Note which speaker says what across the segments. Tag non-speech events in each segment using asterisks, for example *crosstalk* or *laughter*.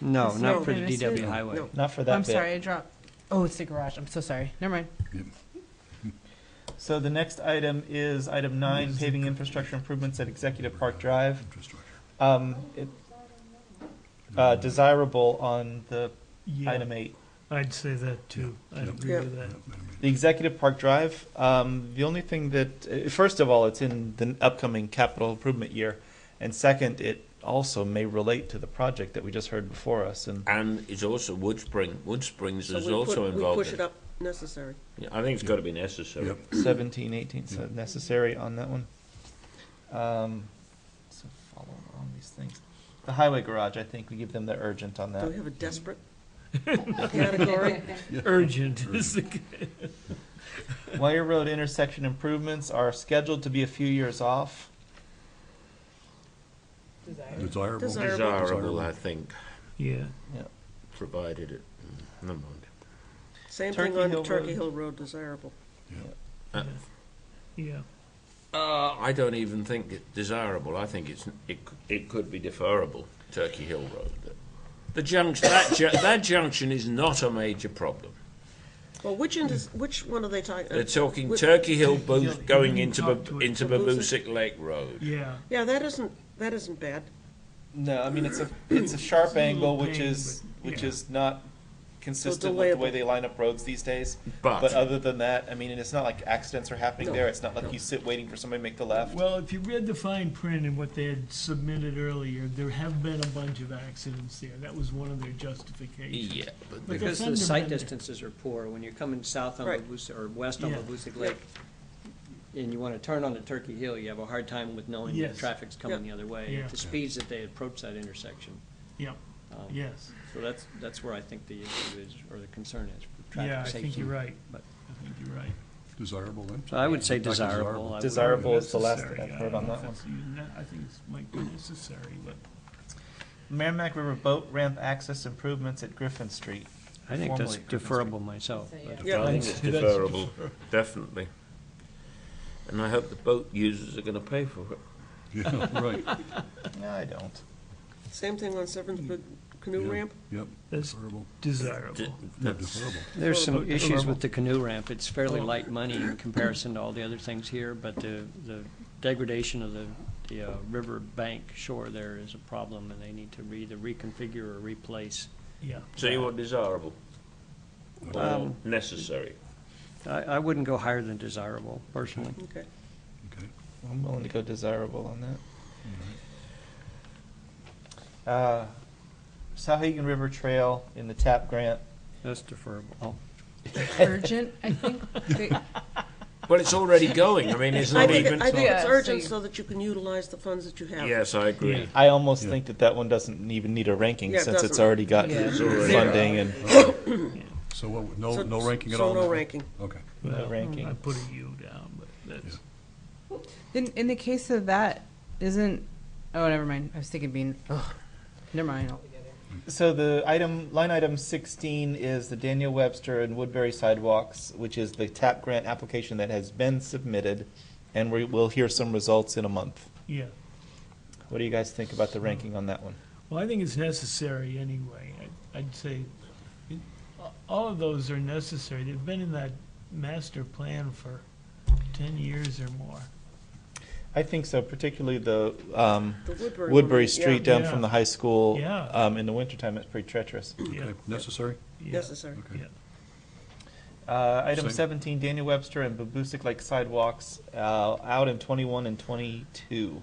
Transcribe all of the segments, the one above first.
Speaker 1: No,
Speaker 2: It's
Speaker 1: not
Speaker 2: no-
Speaker 1: for the DW
Speaker 2: No.
Speaker 1: highway.
Speaker 2: No.
Speaker 3: Not for that
Speaker 2: I'm
Speaker 3: bit.
Speaker 2: sorry, I dropped. Oh, it's the garage. I'm so sorry. Never mind.
Speaker 3: So the next item is item nine, paving infrastructure improvements at Executive Park Drive. Um, it, uh, desirable on the
Speaker 4: Yeah,
Speaker 3: item eight.
Speaker 4: I'd say that too. I
Speaker 5: Yeah.
Speaker 4: agree with that.
Speaker 3: The Executive Park Drive, um, the only thing that, uh, first of all, it's in the upcoming capital improvement year. And second, it also may relate to the project that we just heard before us and
Speaker 6: And it's also Wood Spring. Wood Springs
Speaker 7: So
Speaker 6: is
Speaker 7: we put-
Speaker 6: also involved.
Speaker 7: We push it
Speaker 6: in-
Speaker 7: up necessary.
Speaker 6: Yeah, I think it's got to be necessary.
Speaker 5: Yep.
Speaker 3: seventeen, eighteen, so necessary on that one. Um, so follow on these things. The highway garage, I think we give them the urgent on
Speaker 7: Do
Speaker 3: that.
Speaker 7: we have a desperate category?
Speaker 4: *laughs*
Speaker 5: Er,
Speaker 4: Urgent is the
Speaker 3: Wire road intersection improvements are scheduled to be a few years off.
Speaker 5: Desirable.
Speaker 7: Desirable.
Speaker 6: Desirable, I think,
Speaker 4: Yeah,
Speaker 6: provided it. mm, Never mind.
Speaker 7: Same
Speaker 3: Turkey
Speaker 7: thing
Speaker 3: Hill
Speaker 7: on Turkey
Speaker 3: Road.
Speaker 7: Hill Road desirable.
Speaker 4: yeah.
Speaker 6: Uh, I don't even think it's desirable. I think it's it, it could be deferrable. Turkey Hill Road. The junction that ju- that junction is not a major problem.
Speaker 7: Well, which, inter- which one are they talking? uh,
Speaker 6: They're talking
Speaker 7: Wh-
Speaker 6: Turkey Hill Bo-
Speaker 4: Hill-
Speaker 6: going into
Speaker 4: Up
Speaker 6: Bab-
Speaker 4: to it.
Speaker 6: into Babusick Lake Road.
Speaker 4: Yeah,
Speaker 7: Yeah, that isn't, that isn't bad.
Speaker 3: No, I mean, it's a, it's a sharp angle, which is, which
Speaker 4: Yeah.
Speaker 3: is not consistent with the way they line up roads these days. But
Speaker 6: But
Speaker 3: other than that, I mean, and it's not like accidents are happening there. It's not like you sit waiting for somebody to make the left.
Speaker 4: well, if you read the fine print and what they had submitted earlier, there have been a bunch of accidents there. That was one of their justifications.
Speaker 6: yeah, but
Speaker 4: But
Speaker 1: Because
Speaker 4: they're
Speaker 1: the sight
Speaker 4: fundamental.
Speaker 1: distances are poor, when you're coming south on
Speaker 7: Right.
Speaker 1: Lebucic, or west on
Speaker 4: Yeah.
Speaker 1: Lebucic Lake, and you want to turn onto Turkey Hill, you have a hard time with knowing the
Speaker 4: Yes.
Speaker 1: traffic's coming the other way,
Speaker 4: Yeah.
Speaker 1: at the speeds that they approach that intersection.
Speaker 4: Yep.
Speaker 1: Um,
Speaker 4: Yes,
Speaker 1: So that's, that's where I think the issue is, or the concern is, for
Speaker 4: yeah,
Speaker 1: traffic
Speaker 4: I
Speaker 1: safety.
Speaker 4: think you're right. I
Speaker 1: but-
Speaker 4: think you're right.
Speaker 5: Desirable, I'm
Speaker 1: So I would say
Speaker 5: Like desirable.
Speaker 1: desirable. I would-
Speaker 3: Desirable is the last
Speaker 4: Necessary,
Speaker 3: that I've
Speaker 4: I
Speaker 3: heard
Speaker 4: don't
Speaker 3: on that
Speaker 4: know if
Speaker 3: one.
Speaker 4: it's even that- I think it's might be necessary, but
Speaker 3: Merrimack River Boat Ramp Access Improvements at Griffin Street.
Speaker 1: I think that's
Speaker 3: Formerly Griffin
Speaker 1: deferable myself. but-
Speaker 6: I
Speaker 7: Yeah,
Speaker 6: think it's *laughs* deferrable, definitely. And I hope the boat users are going to pay for it.
Speaker 5: *laughs* Yeah, right,
Speaker 3: Street. No, I don't.
Speaker 7: same thing on Severn's
Speaker 5: Yeah.
Speaker 7: Canoe Ramp.
Speaker 5: yep,
Speaker 4: that's
Speaker 5: desirable,
Speaker 6: D-
Speaker 4: desirable.
Speaker 5: yeah,
Speaker 6: that's-
Speaker 5: desirable.
Speaker 1: There's some
Speaker 4: Deferrable.
Speaker 1: issues with the canoe ramp. It's fairly light money in comparison to all the other things here, but the, the degradation of the, the uh, river bank shore there is a problem, and they need to either reconfigure or replace.
Speaker 4: Yeah,
Speaker 6: So you want desirable or
Speaker 1: Um,
Speaker 6: necessary?
Speaker 1: I, I wouldn't go higher than desirable personally.
Speaker 7: Okay.
Speaker 5: Okay.
Speaker 3: I'm willing to go desirable on that. Uh, Sauhegan River Trail in the TAP grant.
Speaker 1: That's deferable. Oh,
Speaker 2: Urgent, I think. They-
Speaker 6: Well, it's already going. I mean,
Speaker 7: *laughs*
Speaker 6: it's
Speaker 7: I
Speaker 6: not
Speaker 7: think, it-
Speaker 6: *laughs* even.
Speaker 7: I think
Speaker 2: Yeah,
Speaker 7: it's
Speaker 2: so
Speaker 7: urgent
Speaker 2: you-
Speaker 7: so that you can utilize the funds that you have.
Speaker 6: Yes, I agree.
Speaker 3: I almost
Speaker 5: Yeah.
Speaker 3: think that that one doesn't even need a ranking
Speaker 7: Yeah, it
Speaker 3: since it's
Speaker 7: doesn't.
Speaker 3: already got
Speaker 2: Yeah. It's
Speaker 6: already
Speaker 3: funding and
Speaker 5: So what,
Speaker 7: So-
Speaker 5: no, no ranking at
Speaker 7: so
Speaker 5: all? on
Speaker 7: no
Speaker 5: that one?
Speaker 7: ranking.
Speaker 5: Okay,
Speaker 4: well,
Speaker 3: ranking.
Speaker 4: I put a U down, but that's,
Speaker 2: In, in the case of that, isn't, oh, never mind. I was thinking being, oh, never mind.
Speaker 3: So the item, line item sixteen is the Daniel Webster and Woodbury sidewalks, which is the TAP grant application that has been submitted, and we will hear some results in a month.
Speaker 4: yeah.
Speaker 3: What do you guys think about the ranking on that one?
Speaker 4: Well, I think it's necessary anyway. I- I'd say it- all of those are necessary. They've been in that master plan for 10 years or more.
Speaker 7: Mm-hmm.
Speaker 3: I think so, particularly the um,
Speaker 7: The Woodbury. one,
Speaker 3: Woodbury
Speaker 7: yeah,
Speaker 3: Street down
Speaker 4: Yeah.
Speaker 3: from the high school.
Speaker 4: Yeah.
Speaker 3: Um, in the wintertime, it's pretty treacherous.
Speaker 4: Yeah,
Speaker 5: okay, necessary,
Speaker 4: yeah,
Speaker 7: Necessary.
Speaker 5: okay.
Speaker 4: yeah.
Speaker 3: Uh, item
Speaker 5: Same.
Speaker 3: seventeen, Daniel Webster and Babusick Lake sidewalks, uh, out in twenty-one and twenty-two.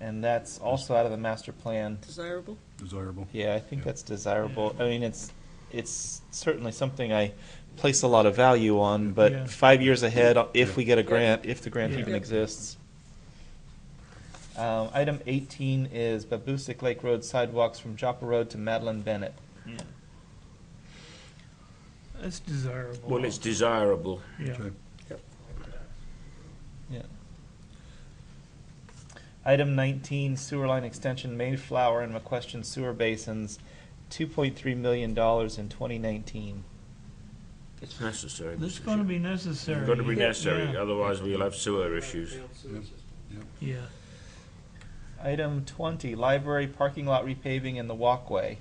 Speaker 3: And that's also out of the master plan.
Speaker 7: Desirable.
Speaker 5: desirable.
Speaker 3: Yeah, I think
Speaker 5: Yeah.
Speaker 3: that's desirable. I mean, it's, it's certainly something I place a lot of value on,
Speaker 4: Yeah.
Speaker 3: but five years ahead, uh, if
Speaker 5: Yeah.
Speaker 3: we get a grant, if the grant
Speaker 4: Yeah.
Speaker 3: even
Speaker 7: Yeah.
Speaker 3: exists. Um, item eighteen is Babusick Lake Road sidewalks from Joppa Road to Madeline Bennett.
Speaker 4: yeah. That's desirable.
Speaker 6: Well, it's desirable.
Speaker 4: Yeah,
Speaker 5: Okay.
Speaker 3: Item nineteen, sewer line extension Mayflower and McQuestion sewer basins, two point three million dollars in twenty nineteen.
Speaker 6: It's necessary.
Speaker 4: that's
Speaker 6: Mr.
Speaker 4: going to
Speaker 6: Chair.
Speaker 4: be necessary.
Speaker 6: It's got to be
Speaker 4: Yeah,
Speaker 6: necessary,
Speaker 4: yeah,
Speaker 6: otherwise we'll have sewer issues.
Speaker 4: Yeah.
Speaker 3: Item twenty, library parking lot repaving and the walkway.